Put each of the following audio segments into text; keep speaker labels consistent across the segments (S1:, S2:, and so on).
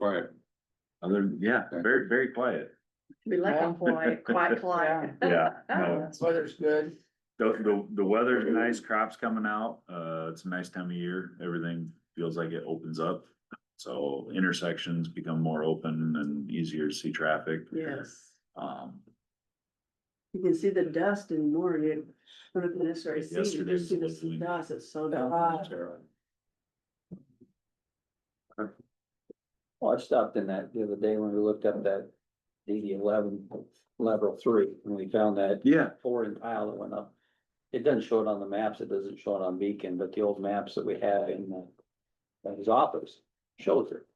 S1: quiet.
S2: Other, than- yeah, very, very quiet.
S3: We like them quiet, quiet, quiet.
S2: Yeah, no,
S3: Oh,
S4: Weather's good.
S2: the, the, the weather's nice, crops coming out, uh, it's a nice time of year, everything feels like it opens up. So intersections become more open and easier to see traffic.
S3: Yes,
S2: Um,
S5: You can see the dust in Morgan, I don't know if this right, see, you
S2: Yesterday
S5: just see
S2: was Oh.
S5: the
S2: lovely.
S5: dust, it's so
S4: Yeah.
S5: dry.
S6: Well, I stopped in that the other day when we looked up that DD eleven lateral three, and we found that
S2: yeah,
S6: four in tile that went up. It doesn't show it on the maps, it doesn't show it on Beacon, but the old maps that we have in the, in his office shows it.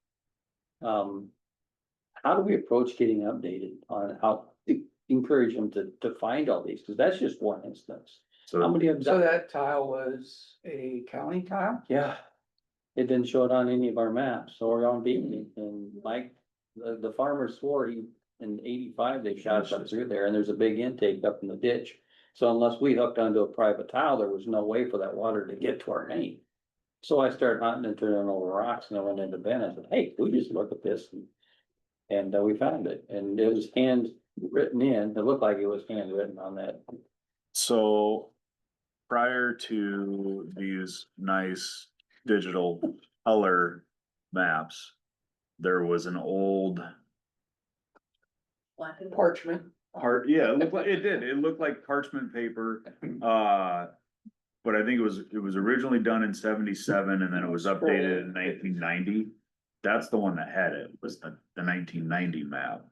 S6: Um, how do we approach getting updated on how, encourage them to, to find all these, because that's just one instance. How
S2: so
S6: many of
S4: So
S6: them,
S4: that tile was a county tile?
S6: yeah, it didn't show it on any of our maps or on Beacon, and Mike, the, the farmer swore he, in eighty-five, they shot us up through there, and there's a big intake up in the ditch. So unless we hooked onto a private tile, there was no way for that water to get to our main. So I started hunting and turning over rocks and I went into Ben and said, hey, we just look at this and. And uh, we found it and it was hand written in, it looked like it was handwritten on that.
S2: So prior to these nice digital color maps, there was an old
S3: black and white.
S4: Parchment.
S2: part, yeah, it looked like, it did, it looked like parchment paper, uh. But I think it was, it was originally done in seventy-seven and then it was updated in nineteen ninety. That's the one that had it, was the, the nineteen ninety map.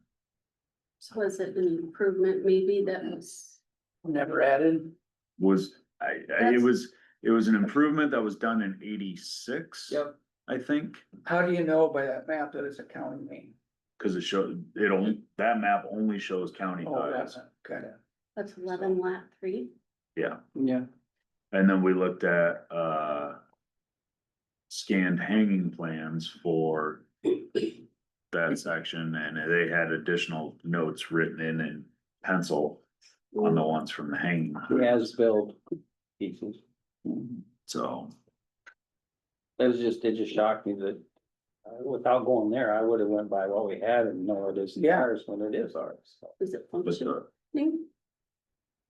S7: So is it an improvement maybe that was,
S4: Never added.
S2: Was, I, I, it
S7: That's-
S2: was, it was an improvement that was done in eighty-six.
S4: Yep.
S2: I think.
S4: How do you know oh, by that map that it's a county main?
S2: Cause it showed, it only, that map only shows county
S4: Oh,
S2: tiles,
S4: that's okay.
S7: that's eleven lap three?
S2: yeah,
S6: Yeah.
S2: and then we looked at, uh. Scanned hanging plans for. That section, and they had additional notes written in in pencil on the ones from the hanging,
S6: As-built pieces.
S2: so.
S6: That was just, it just shocked me that, uh, without going there, I would have went by what we had and know it isn't
S4: Yeah.
S6: ours when it is ours. so.
S7: Is it
S2: but
S7: functional?
S2: the-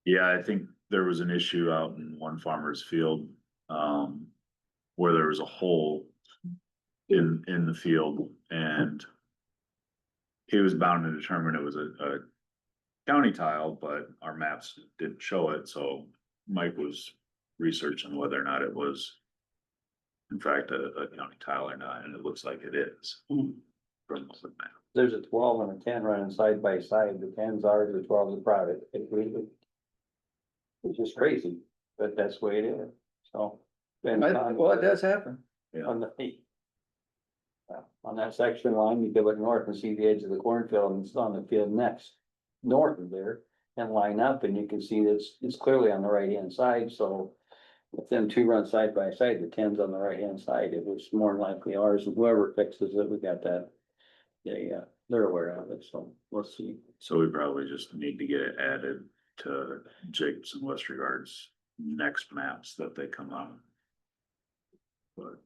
S2: Yeah, I think there was an issue out in one farmer's field, um, where there was a hole in, in the field and he was bound to determine it was a, a county tile, but our maps didn't show it, so Mike was researching whether or not it was in fact a, a county tile or not, and it looks like it is. From the map.
S6: There's a twelve and a ten running side by side, the ten's ours, the twelve's private. It really- It's just crazy, but that's the way it is, so. been
S4: I-
S6: on-
S4: Well, it does happen.
S6: On the. uh, On that section line, you go up north and see the edge of the cornfield and it's on the field next, north of there. And line up and you can see that's, it's clearly on the right hand side, so. If them two run side by side, the tens on the right hand side, it was more than likely ours and whoever fixes it, we got that. Yeah, yeah, they're aware of it, so we'll see.
S2: So we probably just need to get it added to Jacobs and West Regards next maps that they come out. But.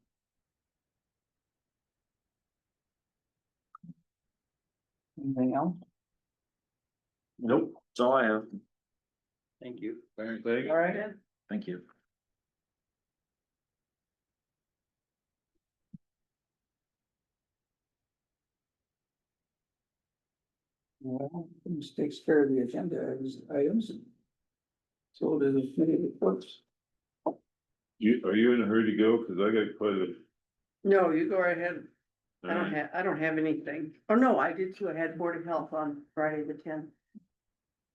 S4: Anything else?
S2: Nope, that's all I have.
S6: Thank you.
S1: Thanks.
S4: All right.
S2: Thank you.
S4: Well, this takes care of the agenda items. So we'll do the committee reports.
S1: You, are you in a hurry to go? Cause I got quite a. uh,
S5: No, you go right ahead, I don't
S2: Mm.
S5: have, I don't have anything, oh no, I did too, I had Board of Health on Friday the tenth,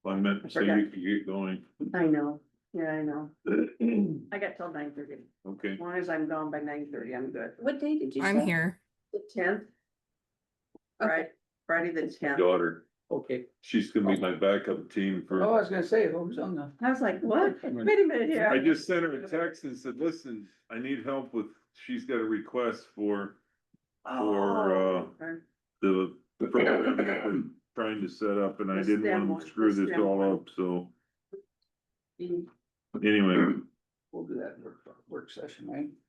S1: I meant, so you can get going.
S5: I know, yeah, I know. I got till nine thirty, as
S1: Okay,
S5: long as I'm gone by nine thirty, I'm good,
S7: What day did you say?
S8: I'm here.
S5: the tenth.
S7: Okay.
S5: Right, Friday the tenth,
S1: daughter,
S6: Okay.
S1: she's gonna be my backup team
S4: Oh,
S1: for.
S4: I was gonna say, who's on the?
S5: I was like, what, wait a minute here.
S1: I just sent her a text and said, listen, I need help with, she's got a request for for, uh,
S5: Oh, okay.
S1: the. program that we're Trying to set up and I
S5: The
S1: didn't
S5: STEM
S1: want
S5: one,
S1: to screw
S5: the
S1: this
S5: STEM
S1: all
S5: one.
S1: up, so
S7: Mm.
S1: anyway,
S4: We'll do that in work, work session, right?